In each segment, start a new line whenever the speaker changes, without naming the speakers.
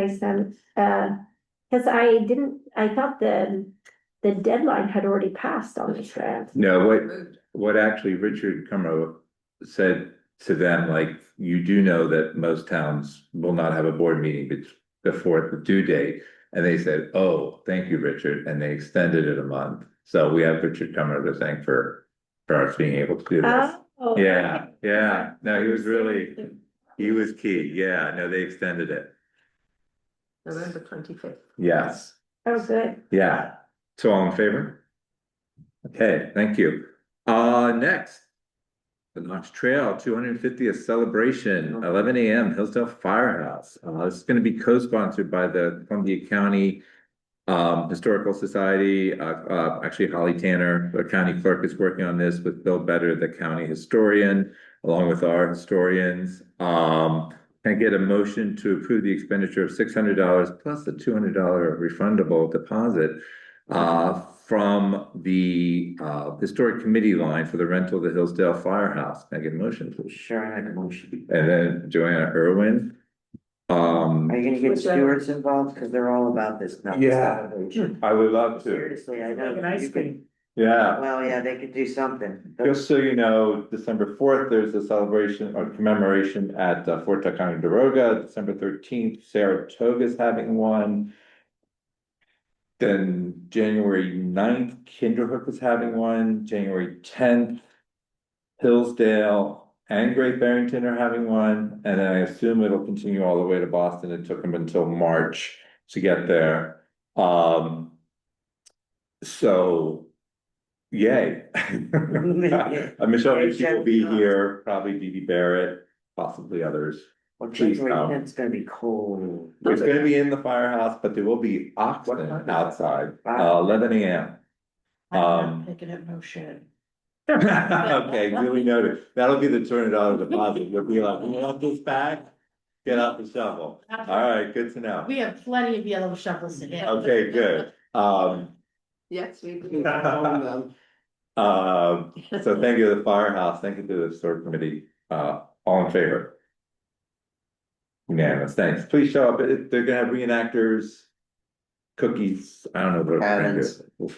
I sent, uh, cause I didn't, I thought the, the deadline had already passed on this grant.
No, what,
Moved.
what actually Richard Cumro said to them, like, you do know that most towns will not have a board meeting bet- before the due date. And they said, oh, thank you, Richard, and they extended it a month. So we have Richard Cumro to thank for, for us being able to do this.
Oh,
Yeah, yeah, no, he was really, he was key, yeah, no, they extended it,
November twenty-fifth.
yes,
Oh, good.
yeah. So all in favor? Okay, thank you. Uh, next. The Knox Trail two hundred and fiftieth celebration, eleven AM, Hillsdale Firehouse. Uh, this is gonna be co-sponsored by the Columbia County. Um, Historical Society, uh, uh, actually Holly Tanner, the county clerk is working on this with Bill Better, the county historian. Along with our historians, um, can I get a motion to approve the expenditure of six hundred dollars plus the two hundred dollar refundable deposit uh, from the, uh, historic committee line for the rental of the Hillsdale Firehouse. Can I get a motion, please?
Sure, I make a motion.
And then Joanna Irwin.
Are
Um,
you gonna get
Which, uh,
stewards involved? Cause they're all about this nuts
Yeah.
celebration.
I would love
Seriously, I know.
Like an ice
You could-
cream.
Yeah,
Well, yeah, they could do something.
just so you know, December fourth, there's a celebration or commemoration at uh, Fort Tucson Doroga. December thirteenth, Saratoga's having one. Then January 9th, Kinderhook is having one, January tenth. Hillsdale and Great Barrington are having one, and I assume it'll continue all the way to Boston. It took them until March to get there. Um. So. Yay. Uh, Michelle Ritchie will be here, probably Dee Dee Barrett, possibly others.
Well,
Please, um, no.
January tenth's gonna be cold.
It's gonna be in the firehouse, but there will be oxygen outside, uh, eleven AM. Um,
Making it no shit.
Okay, duly noted. That'll be the two hundred dollar deposit. You'll be like, you want this back? Get out the shovel. All right, good to know.
We have plenty of yellow shovels in here.
Okay, good. Um,
Yes, we. do.
um, so thank you to the firehouse, thank you to the store committee, uh, all in favor? Unanimous, thanks. Please show up. It- They're gonna have reenactors, cookies, I don't know. what we're gonna do.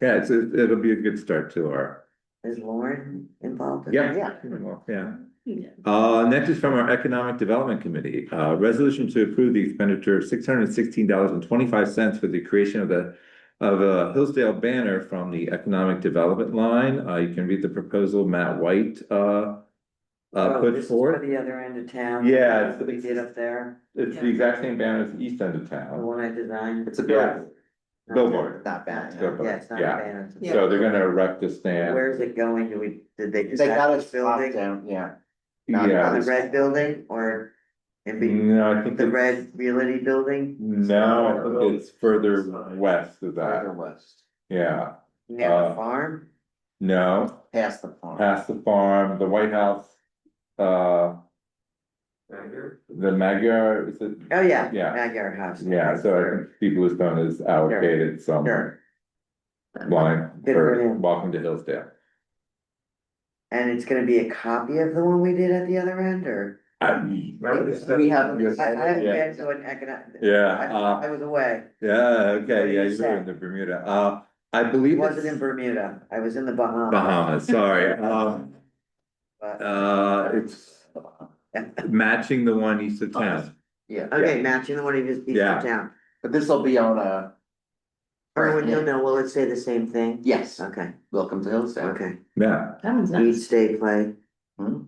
Yeah, it's, it- it'll be a good start to our,
Is Lauren involved? in
yeah,
that?
yeah, yeah.
Yeah.
Uh, next is from our Economic Development Committee, uh, resolution to approve the expenditure of six hundred and sixteen dollars and twenty-five cents for the creation of the. Of a Hillsdale banner from the Economic Development line, uh, you can read the proposal Matt White, uh. Uh,
Oh,
put
this is For
forth,
the other end of town.
Yeah, it's-
That we did up there,
it's the exact same banner as the east end of
the
town,
one I designed.
It's a billboard.
Not-
Billboard.
Not bad,
Billboard,
yeah, it's not a
yeah.
banner. it's a-
so they're gonna erect a stand.
Where's it going? Do we, did they
They got
decide
us
this building?
down, yeah. not-
Yeah,
On the red building or in be-
no, I think
the
it's,
red realty building?
no, I think it's further west of
Further
that,
west,
yeah,
Near
Uh,
the farm?
no.
past the farm.
past the farm, the White House, uh, the Magyar, is it?
Oh, yeah.
Yeah.
Magyar House.
Yeah, so I think Steve Bluestone is allocated some
Sure,
line
Good for
for
him.
Welcome to Hillsdale.
and it's gonna be a copy of the one we did at the other end, or?
We have.
I, I haven't
yeah.
been to an economic.
Yeah, uh,
I I was away,
yeah, okay, yeah,
What did he
you were in the Bermuda, uh, I believe
wasn't in
it's
Bermuda, I was in the Bahamas,
Bahamas, sorry, um,
but,
uh, it's matching the one east of town.
Yeah,
okay, matching the one he just beat
Yeah.
up down.
but this will be on a,
Erwin, you'll know, will it say the same thing?
yes,
Okay,
welcome to Hillsdale.
okay,
Yeah,
That one's
eat,
nice.
stay, play,
Hmm?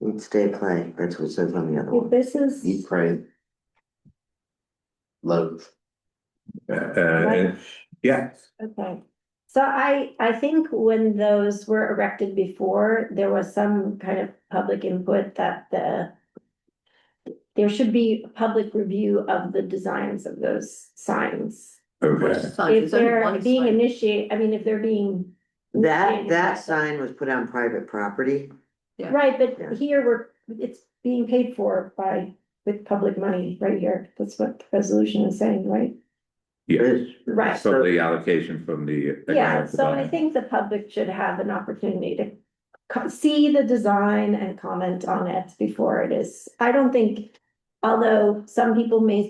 eat, stay, play, that's what it says on the other
Well,
one.
this is.
Eat, pray. Love.
uh, and- yeah,
Okay, so I, I think when those were erected before, there was some kind of public input that the. There should be a public review of the designs of those signs.
okay.
Sign,
If
Oh, there's only
they're
one
being
sign.
initiated, I mean, if they're being.
That, that sign was put on private property,
Yeah.
Right,
Yeah.
but here we're, it's being paid for by, with public money right here, that's what the resolution is saying, right?
Yeah,
It's-
Right.
so the allocation from the.
Yeah, so I
Economic
think the public should have an opportunity to co- see the design and comment on it before it is, I don't think. Although some people may